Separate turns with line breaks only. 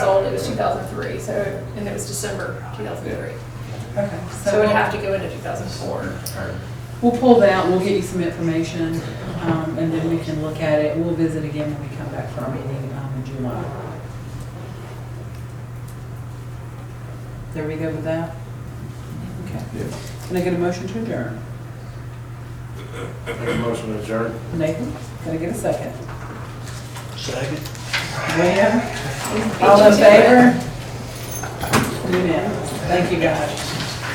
was 2003, so, and it was December 2003.
Okay,
So it would
so
have to go into 2004.
we'll pull that, we'll get you some information, um, and then we can look at it. We'll visit again when we come back for our meeting um, in July. There we go with that? Okay. Can I get a motion to adjourn?
Make a motion to adjourn.
Nathan, can I get a second?
Second.
William? All in favor? Unanimous. Thank you, guys.